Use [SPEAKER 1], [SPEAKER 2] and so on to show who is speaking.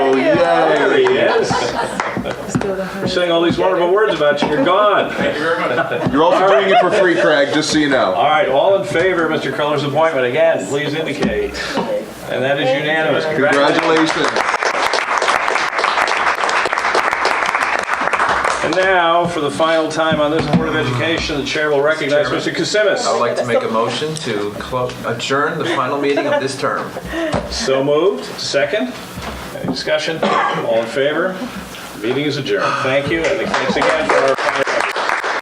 [SPEAKER 1] Oh,
[SPEAKER 2] We're saying all these wonderful words about you, you're gone.
[SPEAKER 3] Thank you very much.
[SPEAKER 1] You're also doing it for free, Craig, just so you know.
[SPEAKER 2] All right, all in favor of Mr. Culler's appointment, again, please indicate. And that is unanimous.
[SPEAKER 1] Congratulations.
[SPEAKER 2] And now, for the final time on this Board of Education, the chair will recognize Mr.
[SPEAKER 3] I would
[SPEAKER 2] Kasimis.
[SPEAKER 3] like to make a motion to clo- adjourn the final meeting of this term.
[SPEAKER 2] So moved, second. Any discussion? All in favor? Meeting is adjourned. Thank you, and thanks again for our...